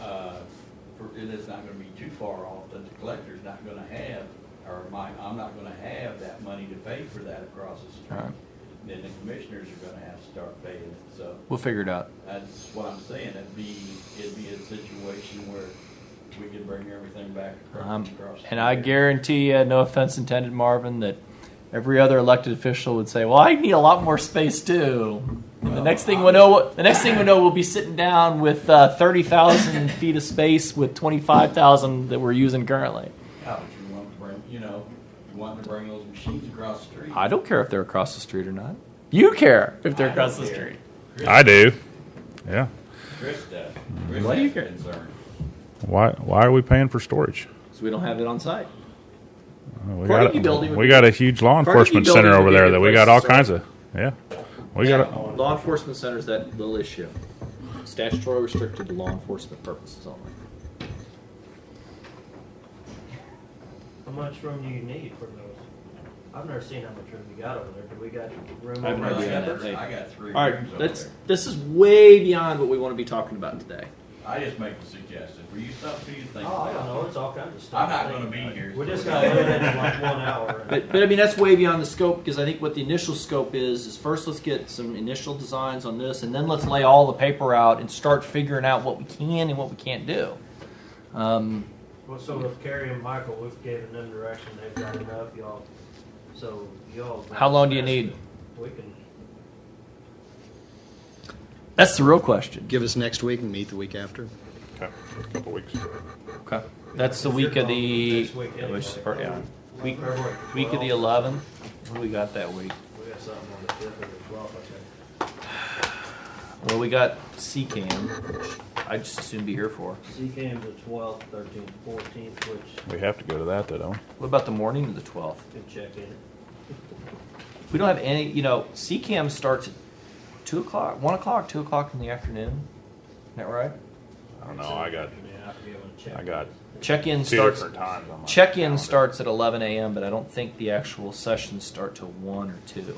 uh, it is not gonna be too far off that the collector's not gonna have, or my, I'm not gonna have that money to pay for that across the street. Right. Then the commissioners are gonna have to start paying it, so We'll figure it out. that's what I'm saying, it'd be, it'd be a situation where we could bring everything back Um, across. across the and I street. guarantee, uh, no offense intended, Marvin, that every other elected official would say, "Well, I need a lot more space too." And the Well, next thing I- we know, the next thing we know, we'll be sitting down with uh, thirty thousand feet of space with twenty-five thousand that we're using currently. How would you want to bring, you know, you want to bring those machines across the street? I don't care if they're across the street or not. You care if they're I across don't the care. street. I do. Yeah. Chris does. Why do you Chris care? has concern. Why Why are we paying for storage? So we don't have it on site. We Carnegie got a, Building would we be- got a huge law Carnegie enforcement Building center would over be a there good that we place got to all start. kinds of. Yeah. We got. A, Law enforcement centers that little issue. Statutory restricted to law enforcement purposes only. How much room do you need for those? I've never seen how much room you got over there. Do we got room I've over never I seen there? got that. three- I got three All rooms right, over that's there. this is way beyond what we want to be talking about today. I just make a suggestion. For you, something for you to think Oh, I don't about. know. It's all kinds of I'm stuff. not gonna be here. We just got limited to like one hour. But, but I mean, that's way beyond the scope because I think what the initial scope is is first let's get some initial designs on this, and then let's lay all the paper out and start figuring out what we can and what we can't do. Um, Well, so with Carrie and Michael, we've given them direction. They've got enough, y'all. So y'all. How long do you need? We can. that's the real question. Give us next week and meet the week after. couple weeks. Okay, that's the You're week of gone the next week yeah, which is anyway. part- yeah. week February week of the 12th. eleventh. What do we got that week? We got something on the fifth or the twelfth, I think. Well, we got CCAM, which I just assume be here for. She came the twelfth, thirteenth, fourteenth, which We have to go to that though, don't we? What about the morning of the twelfth? could check in. We don't have any, you know, CCAM starts at 2 o'clock, 1 o'clock, 2 o'clock in the afternoon. Isn't that right? I don't know. I got. Yeah, I'd be able to check. I got Check in two starts. different times. on my Check in calendar. starts at 11 a.m., but I don't think the actual sessions start till 1 or 2.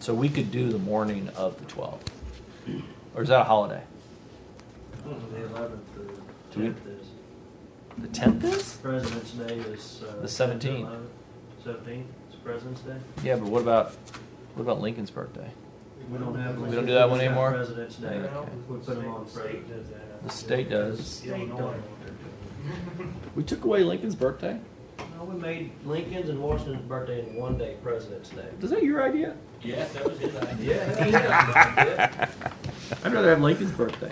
So we could do the morning of the 12th. Or is that a holiday? The eleventh Do through we- tenth is, The 10th is? President's Day is. uh, The 17th. Seventeenth, it's President's Day. Yeah, but what about what about Lincoln's birthday? We don't have. We don't do that one It's not anymore? President's Day, Okay. we put them on President's. The state does. Illinois. We took away Lincoln's birthday? No, we made Lincoln's and Washington's birthday in one day, President's Day. Is that your idea? Yes, that was his idea. Yeah. I'd rather have Lincoln's birthday.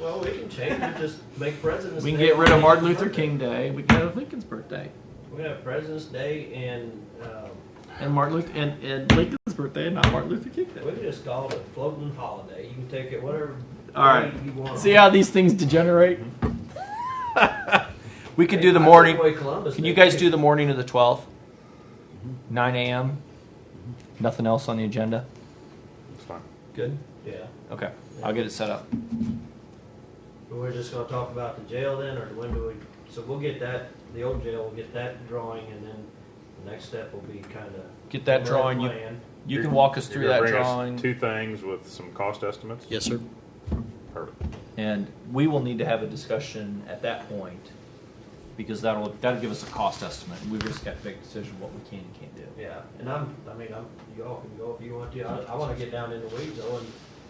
Well, we can change it, just make President's. We can Day get rid of Martin Luther Lincoln's birthday. King Day. We can have Lincoln's birthday. We have President's Day and, um, And Martin Luther and, and Lincoln's birthday and not Martin Luther King we can just call it a floating holiday. You can take it whatever. All right. day You want. See how these things degenerate? we could do the I took morning. away Columbus Can you Day. guys do the morning of the 12th? 9 a.m. Nothing else on the agenda? It's fine. Good. Yeah. Okay. I'll get it set up. We're just gonna talk about the jail then, or when do we, so we'll get that, the old jail, we'll get that drawing, and then the next step will be kinda. Get that drawing. You, Plan. you You're- can walk us you're through gonna that bring us drawing. Two things with some cost estimates. Yes, sir. Perfect. And we will need to have a discussion at that point because that'll, that'll give us a cost estimate. And we've just got to make a decision what we can and can't do. Yeah, and I'm, I mean, I'm, y'all can go if you want to, I, I wanna get down in the weeds though,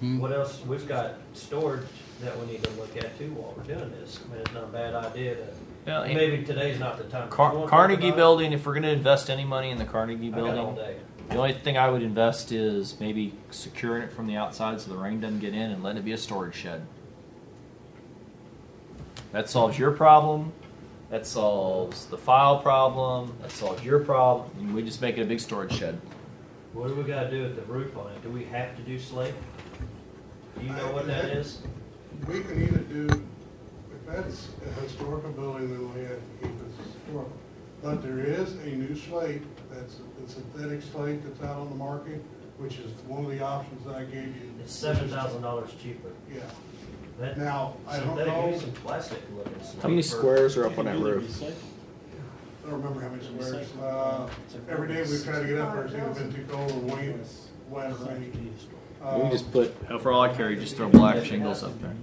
Hmm. and what else, we've got storage that we need to look at too while we're doing this. I mean, it's not a bad idea to, Well, and maybe today's not the time. You Car- wanna talk Carnegie about it? Building, if we're going to invest any money in the Carnegie I got all Building, day. the only thing I would invest is maybe securing it from the outside so the rain doesn't get in and letting it be a storage shed. That solves your problem. That solves the file problem. That solves your problem. And we just make it a big storage shed. What do we gotta do with the roof on it? Do we have to do slate? Do you know what that is? We can either do, if that's a historical building, then we'll have to keep it historical. But there is a new slate, that's a synthetic slate that's out on the market, which is one of the options that I gave you. It's seven thousand dollars cheaper. Yeah. That- Now, I don't synthetic know- is some plastic looking. stuff. are up I don't remember how many squares. Uh, every day we try to get up there, it's either been too cold or wind, wet or rainy. Uh, Uh, put. For all I care, you just throw black shingles up there.